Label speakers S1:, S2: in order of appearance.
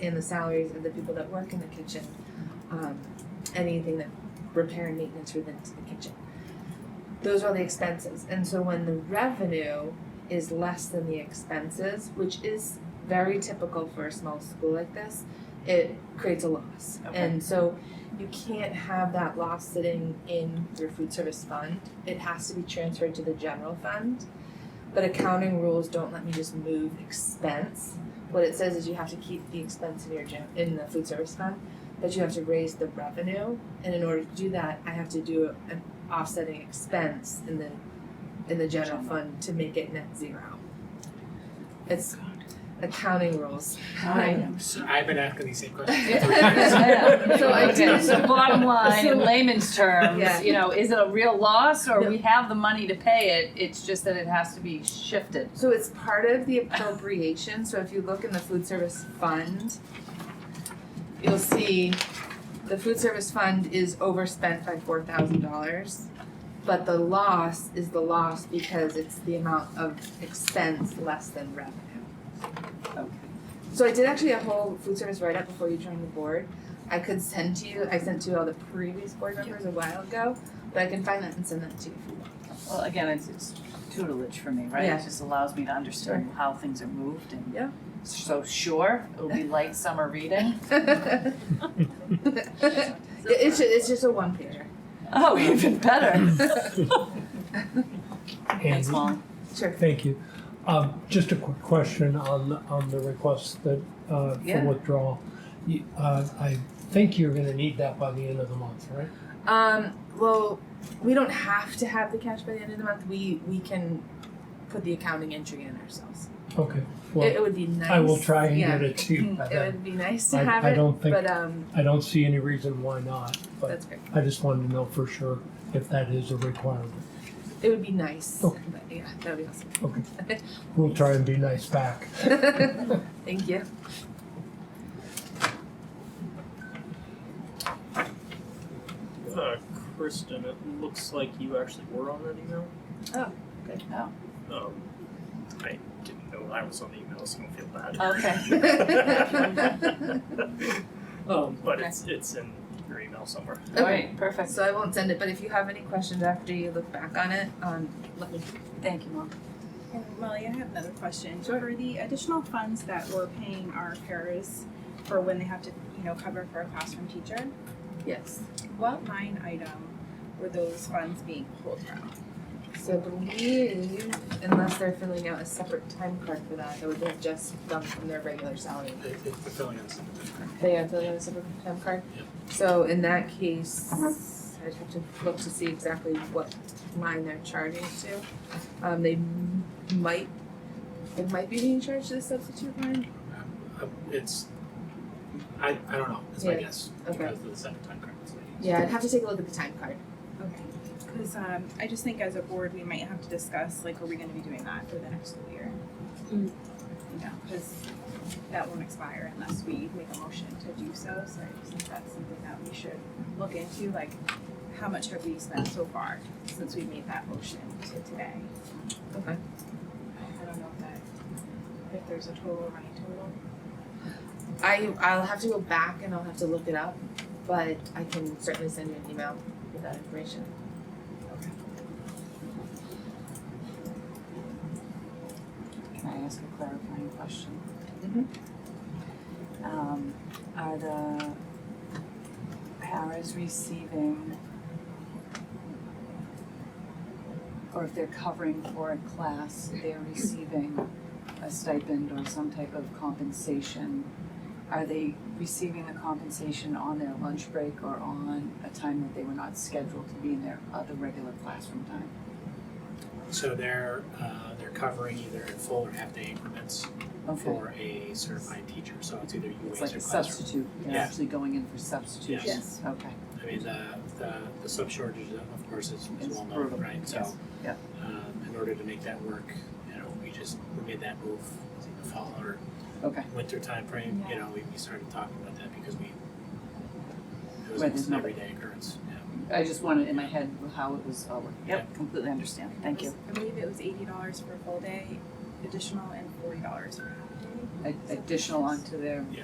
S1: and the salaries of the people that work in the kitchen. Um, anything that repair and maintenance related to the kitchen. Those are the expenses. And so when the revenue is less than the expenses, which is very typical for a small school like this, it creates a loss.
S2: Okay.
S1: And so you can't have that loss sitting in your food service fund. It has to be transferred to the general fund. But accounting rules don't let me just move expense. What it says is you have to keep the expense in your gen- in the food service fund, but you have to raise the revenue. And in order to do that, I have to do an offsetting expense in the in the general fund to make it net zero. It's accounting rules.
S2: I know.
S3: So I've been asking these same questions.
S1: Yeah.
S3: for years.
S1: Yeah.
S2: So I do, so bottom line, in
S1: So-
S2: layman's terms,
S1: Yeah.
S2: you know, is it a real loss or
S1: No.
S2: we have the money to pay it, it's just that it has to be shifted?
S1: So it's part of the appropriation, so if you look in the food service fund, you'll see the food service fund is overspent by four thousand dollars. But the loss is the loss because it's the amount of expense less than revenue.
S2: Okay.
S1: So I did actually a whole food service write-up before you joined the board. I could send to you, I sent to all the previous board members a while ago, but I can find that and send that to you if you want.
S2: Well, again, it's, it's tutelage for me, right?
S1: Yeah.
S2: It just allows me to understand how things are moved and.
S1: Yeah.
S2: So sure, it'll be light summer reading.
S1: It- It's, ju- it's just a one pager.
S2: Oh, even better. Thanks,
S3: And
S2: Molly.
S1: Sure.
S3: Thank you. Um, just a quick question on, the- on the request that, uh, for
S2: Yeah.
S3: withdrawal. You- Uh, I think you're gonna need that by the end of the month, right?
S1: Um, well, we don't have to have the cash by the end of the month. We we can put the accounting entry in ourselves.
S3: Okay,
S1: it,
S3: well,
S1: it would be nice.
S3: I will try and
S1: yeah. Mm,
S3: get it to you by
S1: It
S3: then.
S1: would be nice to
S3: I-
S1: have
S3: I
S1: it,
S3: don't think-
S1: but um,
S3: I don't see any reason why not, but
S1: that's great.
S3: I just wanted to know for sure if that is a requirement.
S1: It would be nice.
S3: Okay.
S1: But yeah, that would be awesome.
S3: Okay. We'll try and be nice back.
S1: Thank you.
S4: Uh, Kristen, it looks like you actually were on that email.
S1: Good.
S2: Oh,
S4: Um, I didn't know I was on the email, so don't feel bad.
S2: Okay.
S4: um, but it's it's in your email somewhere.
S2: All right, perfect.
S1: So I won't send it, but if you have any questions after you look back on it, um, let me.
S2: Thank you, Molly.
S5: And Molly, I have another question.
S1: Sure.
S5: For the additional funds that we're paying our parents for when they have to, you know, cover for a classroom teacher,
S1: Yes.
S5: what line item were those funds being pulled from?
S1: So I believe, unless they're filling out a separate time card for that, that would have just come from their regular salary.
S6: It- It's fulfilling us.
S1: They are filling out a separate time card? So in that case, I'd have to look to see exactly what line they're charging to. Um, they m- might, it might be being charged to the substitute line,
S6: Uh, It's, I, I don't know, it's my
S1: Yeah.
S6: guess.
S1: Okay.
S6: Because of the second time correct.
S1: yeah, I'd have to take a look at the time card.
S5: Okay. Because um, I just think as a board, we might have to discuss, like, are we gonna be doing that for the next school year?
S1: Mm.
S5: You know, because that won't expire unless we make a motion to do so, so I just think that's something that we should look into, like, how much have we spent so far since we made that motion to today?
S1: Okay.
S5: I don't know if that, if there's a total or any total.
S1: I, I'll have to go back and I'll have to look it up, but I can certainly send you an email with that information.
S2: Can I ask a clarifying question?
S1: Mhm.
S2: Um, are the paras receiving, or if they're covering for a class, they're receiving a stipend or some type of compensation? Are they receiving the compensation on their lunch break or on a time that they were not scheduled to be in their other regular classroom time?
S6: So they're, uh, they're covering either in full or half day increments
S2: Okay.
S6: for a certified teacher, so it's either you
S2: It's
S6: ways
S2: like
S6: or
S2: a
S6: classroom.
S2: substitute, they're
S6: Yeah.
S2: actually going in for substitution.
S5: Yes.
S2: Okay,
S6: I mean, the, the, the sub shortage, of course, is, is
S2: It's
S6: well known,
S2: brutal,
S6: right?
S2: yes,
S6: So,
S2: yep.
S6: um, in order to make that work, you know, we just, we made that move, I think the fall or
S2: okay,
S6: winter timeframe, you know, we, we started talking about that because we, it was
S2: Right, there's
S6: almost an
S2: no-
S6: everyday occurrence, yeah.
S2: I just wanted in my head how it was, oh, yep, completely understand, thank you.
S5: I believe it was eighty dollars for a full day, additional and forty dollars for half day.
S2: A- Additional onto their